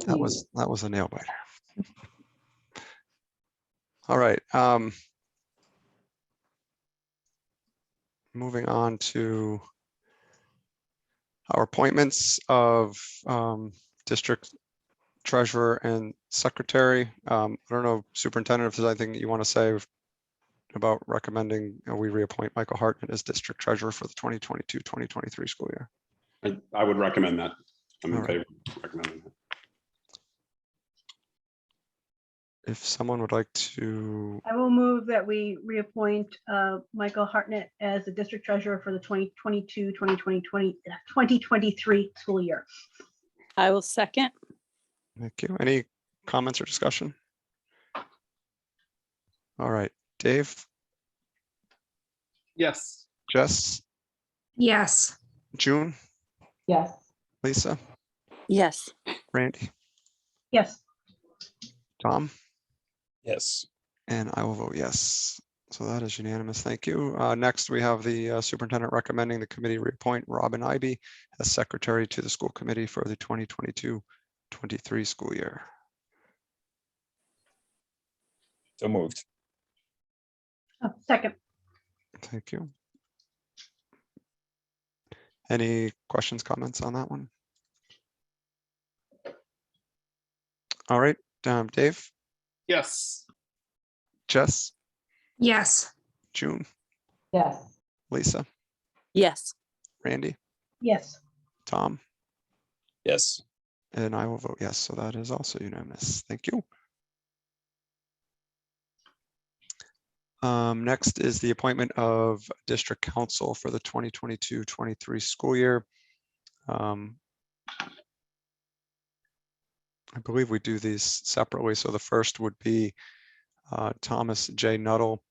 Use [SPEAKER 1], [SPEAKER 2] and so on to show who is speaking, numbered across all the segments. [SPEAKER 1] That was, that was a nail biter. All right. um, Moving on to our appointments of um, district treasurer and secretary. Um, I don't know, superintendent, if there's anything that you want to say about recommending uh, we reappoint Michael Hartman as district treasurer for the 2022, 2023 school year.
[SPEAKER 2] I, I would recommend that. I'm in
[SPEAKER 1] All
[SPEAKER 2] favor of recommending that.
[SPEAKER 1] If someone would like to,
[SPEAKER 3] I will move that we reappoint uh, Michael Hartnett as the district treasurer for the 2022, 2020, 2023 uh, school year.
[SPEAKER 4] I will second.
[SPEAKER 1] thank you. Any comments or discussion? All right, Dave,
[SPEAKER 2] Yes.
[SPEAKER 1] Jess,
[SPEAKER 5] Yes.
[SPEAKER 1] June,
[SPEAKER 5] Yes.
[SPEAKER 1] Lisa,
[SPEAKER 4] Yes.
[SPEAKER 1] Randy,
[SPEAKER 3] Yes,
[SPEAKER 1] Tom,
[SPEAKER 6] Yes.
[SPEAKER 1] and I will vote yes. So that is unanimous. Thank you. Uh, Next, we have the uh, superintendent recommending the committee reappoint Robin Ivy as secretary to the school committee for the 2022-23 school year.
[SPEAKER 6] So moved.
[SPEAKER 3] Oh, second,
[SPEAKER 1] Thank you. Any questions, comments on that one? All right, um, Dave,
[SPEAKER 2] Yes.
[SPEAKER 1] Jess,
[SPEAKER 5] Yes.
[SPEAKER 1] June,
[SPEAKER 5] Yes.
[SPEAKER 1] Lisa,
[SPEAKER 4] Yes.
[SPEAKER 1] Randy,
[SPEAKER 3] yes,
[SPEAKER 1] Tom,
[SPEAKER 6] Yes.
[SPEAKER 1] and I will vote yes, so that is also unanimous. Thank you. Um, next is the appointment of district council for the 2022-23 school year. Um, I believe we do these separately, so the first would be uh, Thomas J. Nuttall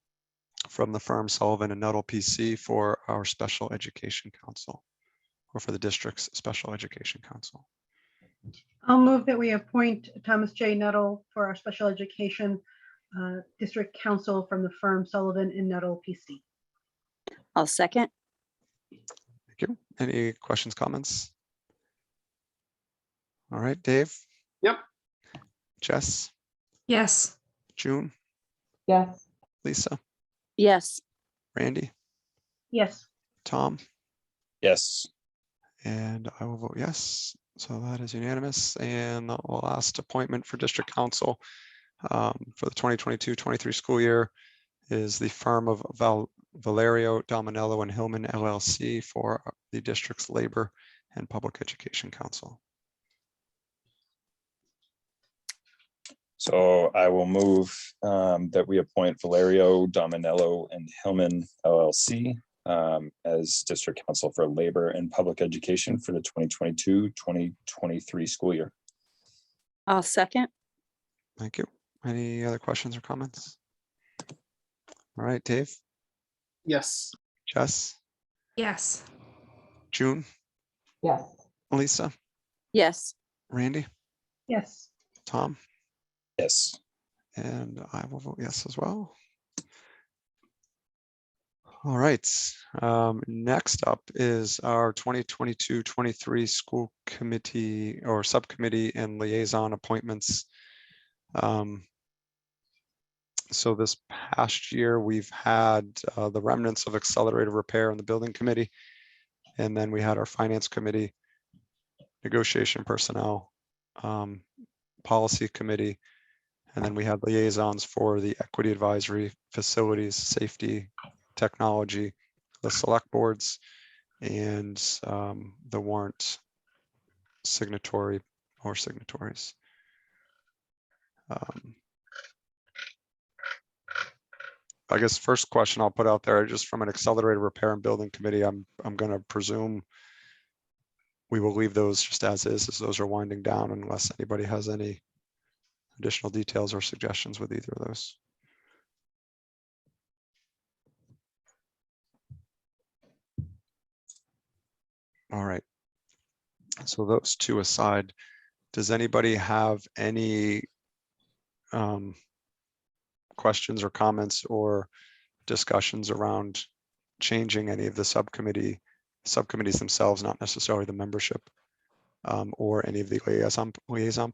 [SPEAKER 1] from the firm Sullivan and Nuttall PC for our special education council, or for the district's special education council.
[SPEAKER 3] I'll move that we appoint Thomas J. Nuttall for our special education uh, district counsel from the firm Sullivan and Nuttall PC.
[SPEAKER 4] I'll second.
[SPEAKER 1] Thank you. Any questions, comments? All right, Dave?
[SPEAKER 2] Yep.
[SPEAKER 1] Jess,
[SPEAKER 5] Yes.
[SPEAKER 1] June,
[SPEAKER 5] Yes.
[SPEAKER 1] Lisa,
[SPEAKER 4] Yes.
[SPEAKER 1] Randy,
[SPEAKER 3] Yes,
[SPEAKER 1] Tom,
[SPEAKER 6] Yes.
[SPEAKER 1] and I will vote yes. So that is unanimous. And the last appointment for district council um, for the 2022-23 school year is the firm of Val- Valerio Dominello and Hillman LLC for the district's labor and public education council.
[SPEAKER 6] So I will move um, that we appoint Valerio Dominello and Hillman LLC um, as District Council for Labor and Public Education for the 2022, 2023 school year.
[SPEAKER 4] I'll second.
[SPEAKER 1] Thank you. Any other questions or comments? All right, Dave,
[SPEAKER 2] Yes.
[SPEAKER 1] Jess,
[SPEAKER 5] Yes.
[SPEAKER 1] June,
[SPEAKER 5] Yes.
[SPEAKER 1] Lisa,
[SPEAKER 4] Yes.
[SPEAKER 1] Randy,
[SPEAKER 3] yes,
[SPEAKER 1] Tom,
[SPEAKER 6] Yes.
[SPEAKER 1] and I will vote yes as well. All right, um, next up is our 2022-23 school committee or subcommittee and liaison appointments. Um, So this past year, we've had uh, the remnants of accelerated repair on the building committee. And then we had our finance committee, negotiation personnel, um, policy committee. And then we had liaisons for the equity advisory, facilities, safety, technology, the select boards, and um, the warrant signatory or signatories. Um, I guess first question I'll put out there, just from an accelerated repair and building committee, I'm, I'm gonna presume we will leave those just as is, as those are winding down unless anybody has any additional details or suggestions with either of those. All right. So those two aside, does anybody have any um, questions or comments or discussions around changing any of the subcommittee, subcommittees themselves, not necessarily the membership um, or any of the liaison, liaison